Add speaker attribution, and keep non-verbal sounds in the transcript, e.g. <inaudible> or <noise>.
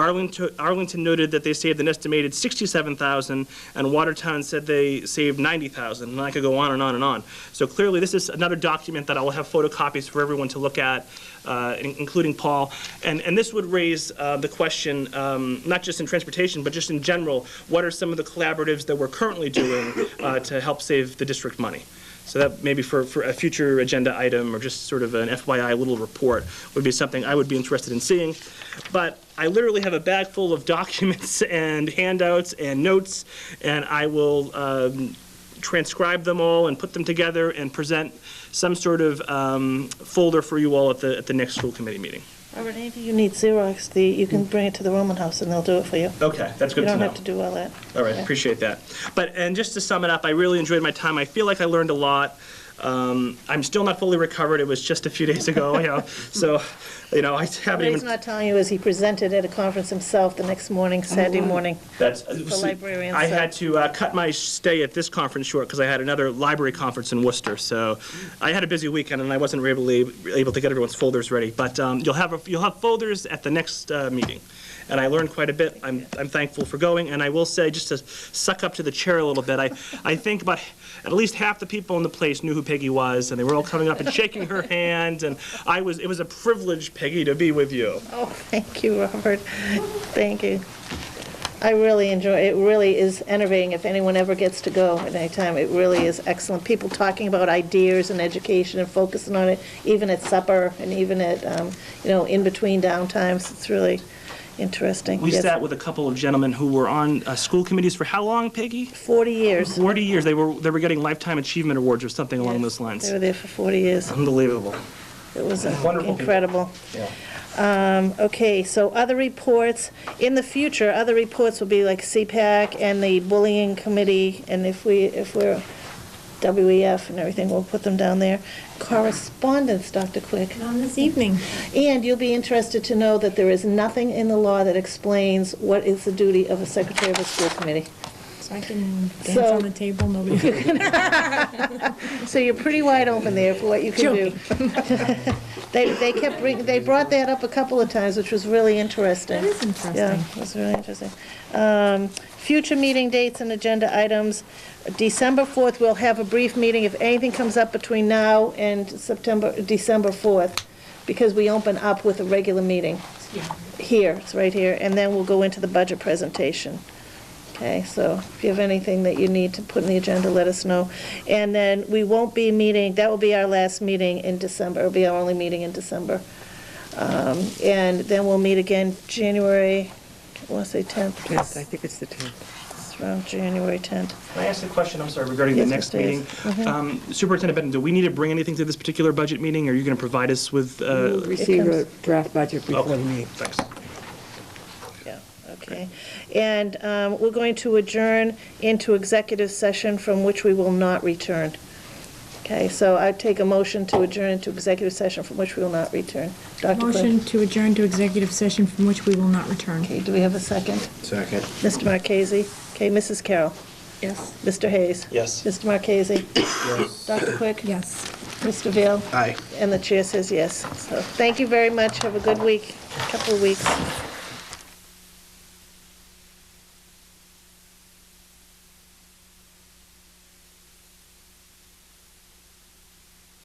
Speaker 1: Arlington Arlington noted that they saved an estimated 67,000, and Watertown said they saved 90,000, and I could go on and on and on. So clearly, this is another document that I will have photocopies for everyone to look at, uh, in- including Paul. And, and this would raise uh, the question, um, not just in transportation, but just in general, what are some of the collaboratives that we're currently doing uh, to help save the district money? So that maybe for, for a future agenda item or just sort of an FYI little report would be something I would be interested in seeing. But I literally have a bag full of <laughs> documents and handouts and notes, and I will um, transcribe them all and put them together and present some sort of um, folder for you all at the, at the next school committee meeting.
Speaker 2: Robert, if you need Xerox, the, you can bring it to the Roman House and they'll do it for you.
Speaker 1: Okay, that's good
Speaker 2: You
Speaker 1: to know. Uh,
Speaker 2: don't have to do all that.
Speaker 1: All right, appreciate that. But, and just to sum it up, I really enjoyed my time. I feel like I learned a lot. Um, I'm still not fully recovered. It was just a few <laughs> days ago, you know, so, you know, I
Speaker 2: What
Speaker 1: haven't
Speaker 2: he's
Speaker 1: even.
Speaker 2: not telling you is he presented at a conference himself the next morning,
Speaker 1: Mm-hmm.
Speaker 2: Saturday morning. <laughs>
Speaker 1: That's,
Speaker 2: librarian,
Speaker 1: I
Speaker 2: so-
Speaker 1: had to uh, cut my stay at this conference short because I had another library conference in Worcester. So I had a busy weekend and I wasn't able, able to get everyone's folders ready. But um, you'll have, a- you'll have folders at the next uh, meeting. And I learned quite a bit. I'm, I'm thankful for going. And I will say, just to suck up to the chair a little bit, I, I think about, at least half the people in the place knew who Peggy was and they were all coming up and shaking her <laughs> hand. And I was, it was a privilege, Peggy, to be with you.
Speaker 2: Oh, thank you, Robert. Thank you. I really enjoy, it really is enervating if anyone ever gets to go at any time. It really is excellent. People talking about ideas and education and focusing on it, even at supper and even at, um, you know, in between downtimes. It's really interesting.
Speaker 1: We
Speaker 2: Yes.
Speaker 1: sat with a couple of gentlemen who were on uh, school committees for how long, Peggy?
Speaker 2: 40 years.
Speaker 1: 40 years. They were, they were getting lifetime achievement awards or something along those lines.
Speaker 2: They were there for 40 years.
Speaker 1: Unbelievable.
Speaker 2: It was uh,
Speaker 1: Wonderful people.
Speaker 2: incredible. Um, Okay, so other reports, in the future, other reports will be like CPAC and the bullying committee, and if we, if we're WEF and everything, we'll put them down there. Correspondence, Dr. Quick.
Speaker 3: on this evening.
Speaker 2: And you'll be interested to know that there is nothing in the law that explains what is the duty of a secretary of a school committee.
Speaker 3: So I can dance
Speaker 2: So-
Speaker 3: on the table, nobody.
Speaker 2: <laughs> So you're pretty wide open there for what you can do. <laughs> They, they kept, bring- they brought that up a couple of times, which was really interesting.
Speaker 3: That is interesting.
Speaker 2: Yeah, that's really interesting. Um, Future meeting dates and agenda items. December 4th, we'll have a brief meeting if anything comes up between now and September, December 4th, because we open up with a regular meeting. Here, it's right here, and then we'll go into the budget presentation. Okay, so if you have anything that you need to put in the agenda, let us know. And then we won't be meeting, that will be our last meeting in December, it'll be our only meeting in December. Um, And then we'll meet again January, I want to say 10th,
Speaker 4: Yes, I think it's the 10th.
Speaker 2: it's around January 10th.
Speaker 1: Can I ask a question, I'm sorry, regarding the
Speaker 2: Yes, Mm-hmm.
Speaker 1: next
Speaker 2: Mr.
Speaker 1: meeting?
Speaker 2: Hayes.
Speaker 1: Um, Superintendent Benton, do we need to bring anything to this particular budget meeting? Are you going to provide us with? uh,
Speaker 2: Mm.
Speaker 4: We'll receive a
Speaker 2: comes-
Speaker 4: draft budget before the meeting.
Speaker 1: Thanks.
Speaker 2: Yeah, okay. And um, we're going to adjourn into executive session from which we will not return. Okay, so I take a motion to adjourn into executive session from which we will not return. Dr. Quinn?
Speaker 3: Motion to adjourn to executive session from which we will not return.
Speaker 2: Okay, do we have a second?
Speaker 5: Second.
Speaker 2: Mr. Marchese? Okay, Mrs. Carroll?
Speaker 3: Yes.
Speaker 2: Mr. Hayes?
Speaker 1: Yes.
Speaker 2: Mr. Marchese? Dr. Quick?
Speaker 3: Yes.
Speaker 2: Mr. Vail?
Speaker 5: Aye.
Speaker 2: And the chair says yes. So thank you very much. Have a good week, couple of weeks.